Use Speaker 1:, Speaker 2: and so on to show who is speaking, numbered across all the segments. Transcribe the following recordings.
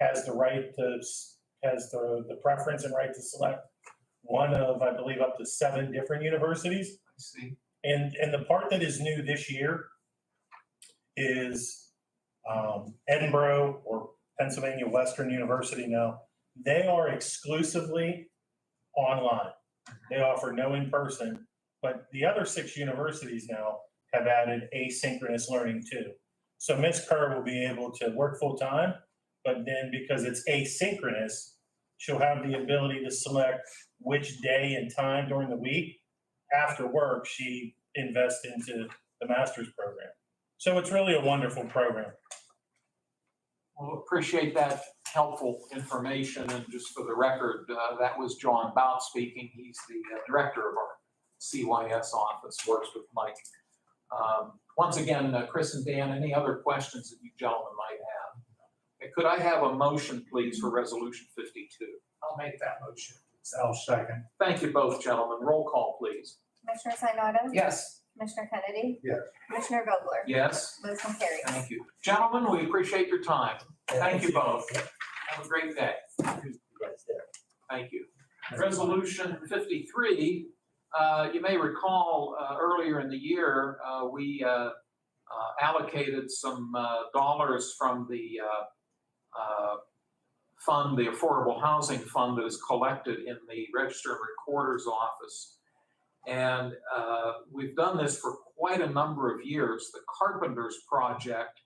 Speaker 1: has the right to, s- has the, the preference and right to select one of, I believe, up to seven different universities.
Speaker 2: I see.
Speaker 1: And, and the part that is new this year is um, Edinburgh or Pennsylvania Western University now, they are exclusively online. They offer no in-person, but the other six universities now have added asynchronous learning too. So Ms. Kerr will be able to work full-time, but then because it's asynchronous, she'll have the ability to select which day and time during the week after work, she invests into the master's program. So it's really a wonderful program.
Speaker 2: Well, appreciate that helpful information, and just for the record, uh, that was John Bout speaking. He's the uh, director of our CYS office, works with Mike. Um, Once again, uh, Chris and Dan, any other questions that you gentlemen might have? And Could I have a motion, please, for Resolution 52?
Speaker 3: I'll make that motion. I'll second.
Speaker 2: Thank you both, gentlemen. Roll call, please.
Speaker 4: Commissioner Sinata?
Speaker 3: Yes.
Speaker 4: Commissioner Kennedy?
Speaker 3: Yes.
Speaker 4: Commissioner Vogler?
Speaker 2: Yes?
Speaker 4: Motion carries.
Speaker 2: Thank you. Gentlemen, we appreciate your time. Thank you both. Have a great day. Thank you. Resolution 53, uh, you may recall uh, earlier in the year, uh, we uh, uh, allocated some uh, dollars from the uh, uh, fund, the Affordable Housing Fund that is collected in the Register and Recorder's Office. And uh, we've done this for quite a number of years. The Carpenters Project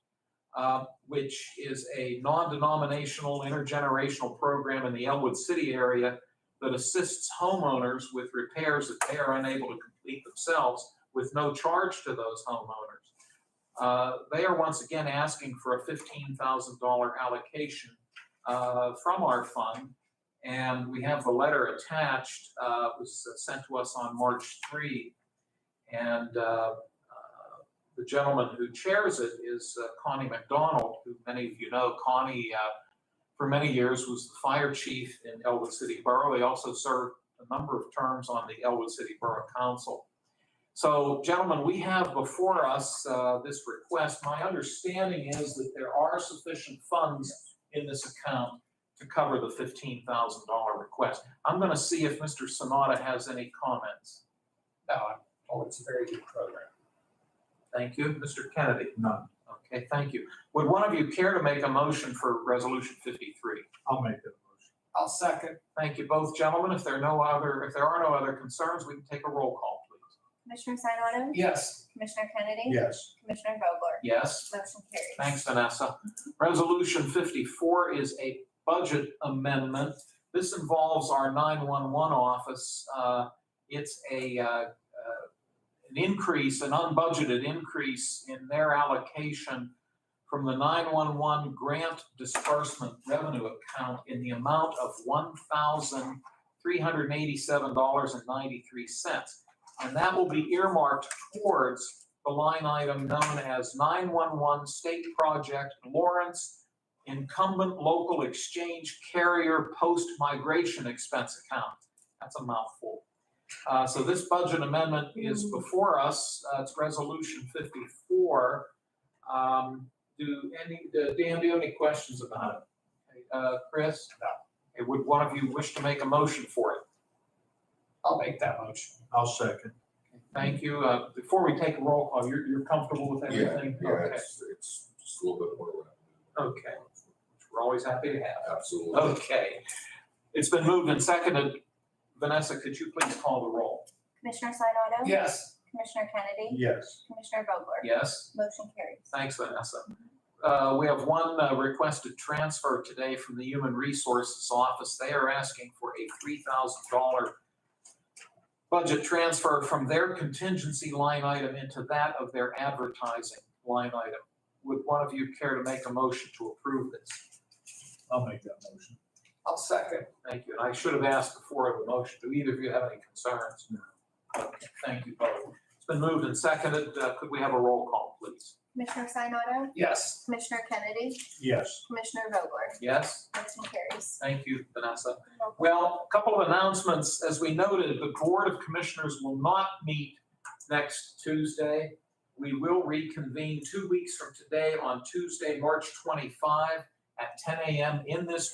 Speaker 2: uh, which is a non-denominational intergenerational program in the Elwood City area that assists homeowners with repairs that they are unable to complete themselves with no charge to those homeowners. Uh, They are once again asking for a $15,000 allocation uh, from our fund. And we have the letter attached, uh, it was sent to us on March 3. And uh, uh, the gentleman who chairs it is uh, Connie McDonald, who many of you know. Connie, uh, for many years, was the fire chief in Elwood City Borough. He also served a number of terms on the Elwood City Borough Council. So, gentlemen, we have before us uh, this request. My understanding is that there are sufficient funds in this account to cover the $15,000 request. I'm going to see if Mr. Sonata has any comments.
Speaker 3: No, I'm- oh, it's a very good program.
Speaker 2: Thank you. Mr. Kennedy?
Speaker 3: None.
Speaker 2: Okay, thank you. Would one of you care to make a motion for Resolution 53?
Speaker 3: I'll make that motion. I'll second.
Speaker 2: Thank you both, gentlemen. If there are no other, if there are no other concerns, we can take a roll call, please.
Speaker 4: Commissioner Sinata?
Speaker 3: Yes.
Speaker 4: Commissioner Kennedy?
Speaker 3: Yes.
Speaker 4: Commissioner Vogler?
Speaker 2: Yes?
Speaker 4: Motion carries.
Speaker 2: Thanks, Vanessa. Resolution 54 is a budget amendment. This involves our 911 office. Uh, It's a, uh, uh, an increase, an unbudgeted increase in their allocation from the 911 grant disbursement revenue account in the amount of $1,387.93. And that will be earmarked towards the line item known as 911 State Project Lawrence Incumbent Local Exchange Carrier Post-Migration Expense Account. That's a mouthful. Uh, So this budget amendment is before us. Uh, It's Resolution 54. Um, Do any, do- Dan, do you have any questions about it? Uh, Chris?
Speaker 3: No.
Speaker 2: Okay, Would one of you wish to make a motion for it?
Speaker 3: I'll make that motion. I'll second.
Speaker 2: Thank you. Uh, Before we take a roll call, you're, you're comfortable with
Speaker 5: Yeah,
Speaker 2: everything?
Speaker 5: Yeah,
Speaker 2: Okay.
Speaker 5: it's, it's just a little bit more. around.
Speaker 2: Okay. which we're always happy to have.
Speaker 5: Absolutely.
Speaker 2: Okay. It's been moved and seconded. Vanessa, could you please call the roll?
Speaker 4: Commissioner Sinata?
Speaker 3: Yes.
Speaker 4: Commissioner Kennedy?
Speaker 3: Yes.
Speaker 4: Commissioner Vogler?
Speaker 2: Yes?
Speaker 4: Motion carries.
Speaker 2: Thanks, Vanessa. Uh, We have one uh, requested transfer today from the Human Resources Office. They are asking for a $3,000 budget transfer from their contingency line item into that of their advertising line item. Would one of you care to make a motion to approve this?
Speaker 3: I'll make that motion. I'll second.
Speaker 2: Thank you. And I should have asked before of the motion, do either of you have any concerns?
Speaker 3: No.
Speaker 2: Okay, Thank you both. It's been moved and seconded. Uh, Could we have a roll call, please?
Speaker 4: Commissioner Sinata?
Speaker 3: Yes.
Speaker 4: Commissioner Kennedy?
Speaker 3: Yes.
Speaker 4: Commissioner Vogler?
Speaker 2: Yes?
Speaker 4: Motion carries.
Speaker 2: Thank you, Vanessa. Well, a couple of announcements. As we noted, the Board of Commissioners will not meet next Tuesday. We will reconvene two weeks from today on Tuesday, March 25, at ten AM in this